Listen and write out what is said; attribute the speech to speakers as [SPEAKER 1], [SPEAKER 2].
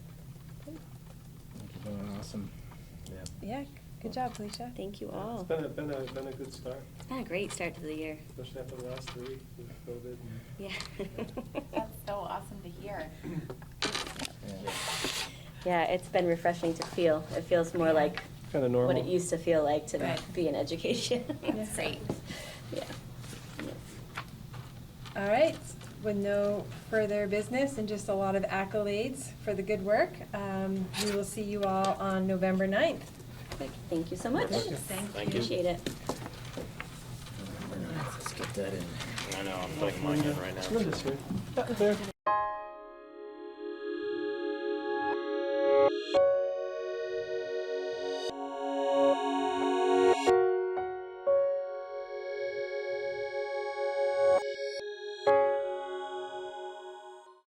[SPEAKER 1] Awesome. Yeah.
[SPEAKER 2] Yeah, good job, Felicia.
[SPEAKER 3] Thank you
[SPEAKER 4] It's
[SPEAKER 3] all.
[SPEAKER 4] been a, been a, been a good start,
[SPEAKER 3] It's been a great start to the year.
[SPEAKER 4] especially after the last three with COVID.
[SPEAKER 3] Yeah.
[SPEAKER 5] That's so awesome to hear.
[SPEAKER 1] Yeah.
[SPEAKER 3] Yeah, it's been refreshing to feel. It feels more like
[SPEAKER 4] Kind of normal.
[SPEAKER 3] what it used to feel like to
[SPEAKER 5] Right.
[SPEAKER 3] be in education.
[SPEAKER 2] Yeah.
[SPEAKER 5] Great.
[SPEAKER 3] Yeah. Yeah.
[SPEAKER 2] All right, with no further business and just a lot of accolades for the good work, um, we will see you all on November 9th.
[SPEAKER 3] Perfect. Thank you so much.
[SPEAKER 1] Thank you.
[SPEAKER 5] Thank you.
[SPEAKER 3] Appreciate it.
[SPEAKER 1] Let's get that in.
[SPEAKER 6] I know, I'm putting mine in right now.
[SPEAKER 4] Linda's here. There.